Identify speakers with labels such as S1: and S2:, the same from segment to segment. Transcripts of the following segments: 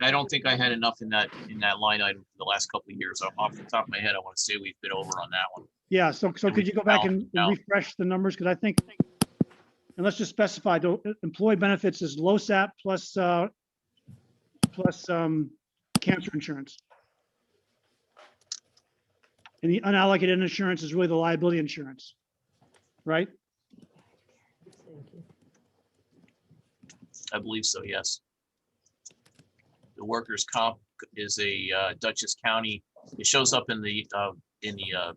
S1: I don't think I had enough in that, in that line item for the last couple of years. Off- Off the top of my head, I want to say we've been over on that one.
S2: Yeah, so, so
S1: And
S2: could
S1: we
S2: you go back
S1: balance
S2: and
S1: it out.
S2: refresh the numbers? Because I think, and let's just specify, the uh, employee benefits is LoSAP plus, uh, plus, um, cancer insurance. And the unallocated insurance is really the liability insurance, right?
S1: I believe so, yes. The workers' comp is a uh, Dutchess County, it shows up in the, uh, in the, uh,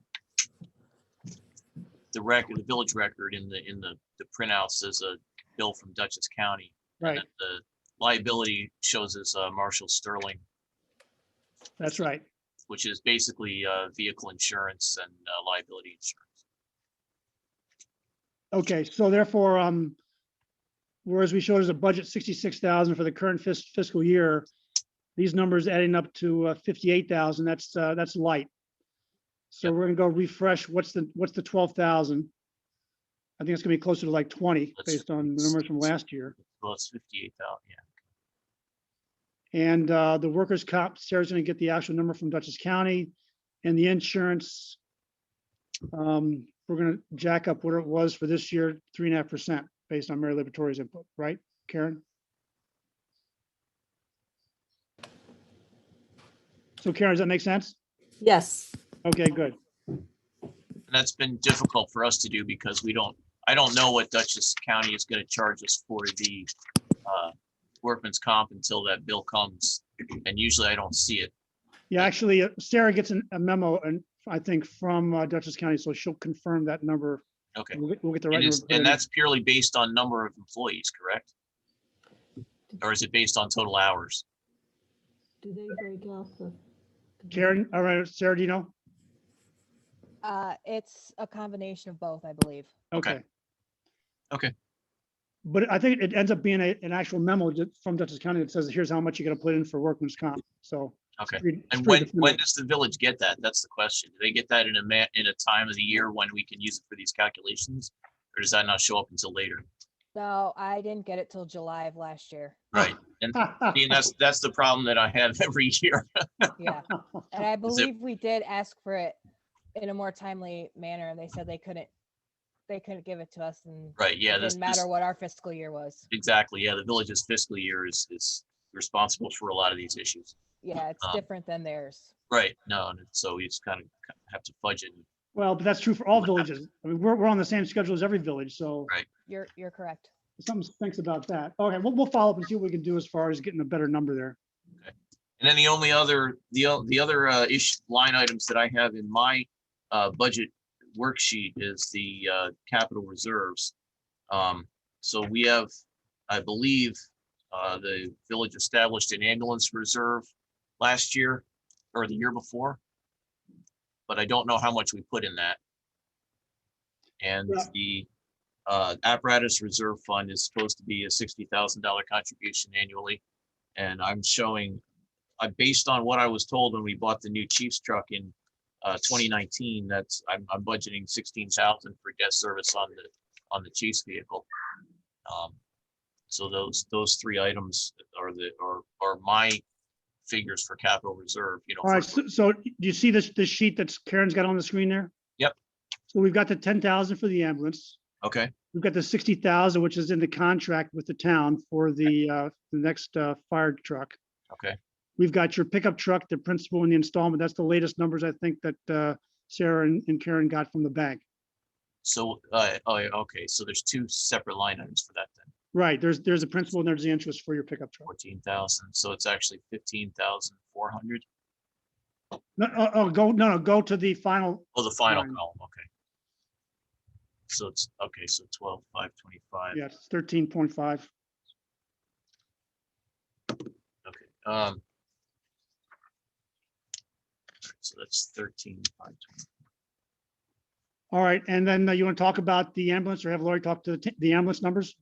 S1: the record, the village record in the, in the, the printouts as a bill from Dutchess County.
S2: Right,
S1: And The liability shows as uh, Marshall Sterling,
S2: that's right.
S1: which is basically uh, vehicle insurance and uh, liability insurance.
S2: Okay, so therefore, um, whereas we showed as a budget sixty-six thousand for the current fis- fiscal year, these numbers adding up to uh, fifty-eight thousand, that's, uh, that's light. So
S1: Yep.
S2: we're gonna go refresh, what's the, what's the twelve thousand? I think it's gonna be closer to like twenty,
S1: Let's-
S2: based on the numbers from last year.
S1: Well, it's fifty-eight thousand, yeah.
S2: And uh, the workers' comp, Sarah's gonna get the actual number from Dutchess County and the insurance. um, We're gonna jack up what it was for this year, three and a half percent based on Mary Liberatore's input, right, Karen? So Karen, does that make sense?
S3: Yes,
S2: Okay, good.
S1: And that's been difficult for us to do because we don't, I don't know what Dutchess County is gonna charge us for the uh, workman's comp until that bill comes. And usually I don't see it.
S2: Yeah, actually, uh, Sarah gets an- a memo and I think from uh, Dutchess County, so she'll confirm that number.
S1: Okay.
S2: We'll get- we'll get the right.
S1: And it's-
S2: number.
S1: and that's purely based on number of employees, correct? Or is it based on total hours?
S4: Do they break out the?
S2: Karen, all right, Sarah, do you know?
S5: Uh, it's a combination of both, I believe.
S1: Okay.
S2: Okay.
S1: Okay.
S2: But I think it ends up being a, an actual memo ju- from Dutchess County that says, here's how much you're gonna put in for workman's comp, so.
S1: Okay.
S2: it's pretty- it's
S1: And when,
S2: pretty
S1: when
S2: definitive.
S1: does the village get that? That's the question. Do they get that in a ma, in a time of the year when we can use it for these calculations? Or does that not show up until later?
S5: No, I didn't get it till July of last year.
S1: Right. I mean, that's, that's the problem that I have every year.
S5: Yeah. And I
S1: Is it-
S5: believe we did ask for it in a more timely manner and they said they couldn't, they couldn't give it to us and
S1: Right, yeah,
S5: it
S1: that's,
S5: didn't matter what our fiscal year was.
S1: exactly, yeah, the village's fiscal year is, is responsible for a lot of these issues.
S5: Yeah, it's
S1: Um,
S5: different than theirs.
S1: Right, no, and so we just kind of have to fudge it.
S2: Well, but that's true for all villages. I mean, we're, we're on the same schedule as every village, so
S1: Right.
S5: You're, you're correct.
S2: something thinks about that. Okay, we'll, we'll follow up and see what we can do as far as getting a better number there.
S1: And then the only other, the, o- the other uh, ish, line items that I have in my uh, budget worksheet is the uh, capital reserves. Um, So we have, I believe, uh, the village established an ambulance reserve last year or the year before. But I don't know how much we put in that. And
S2: Yeah.
S1: the uh, apparatus reserve fund is supposed to be a sixty thousand dollar contribution annually. And I'm showing I, based on what I was told when we bought the new Chiefs truck in uh, 2019, that's, I'm, I'm budgeting 16,000 for debt service on the, on the Chiefs vehicle. Um, So those, those three items are the, are, are my figures for capital reserve, you know.
S2: All right,
S1: for-
S2: so, so do you see this, this sheet that's Karen's got on the screen there?
S1: Yep.
S2: So we've got the ten thousand for the ambulance.
S1: Okay,
S2: We've got the sixty thousand, which is in the contract with the town for the, uh, the next, uh, fire truck.
S1: okay,
S2: We've got your pickup truck, the principal and the installment. That's the latest numbers I think that uh, Sarah and and Karen got from the bank.
S1: so, uh, oh, yeah, okay, so there's two separate line items for that then,
S2: Right, there's, there's a principal and there's the interest for your pickup truck.
S1: 14,000, so it's actually 15,400.
S2: No, oh, oh, go, no, no, go to the final,
S1: Oh, the final
S2: Fine.
S1: column, okay. So it's, okay, so 12, 525.
S2: yes, thirteen point five.
S1: Okay, um. So that's thirteen, five, twenty.
S2: All right, and then uh, you want to talk about the ambulance or have Lori talk to the t- the ambulance numbers?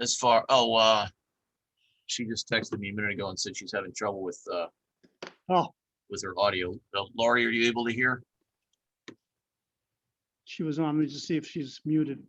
S1: As far, oh, uh, she just texted me a minute ago and said she's having trouble with, uh,
S2: Oh,
S1: with her audio. Uh, Laurie, are you able to hear?
S2: she was on, let me just see if she's muted.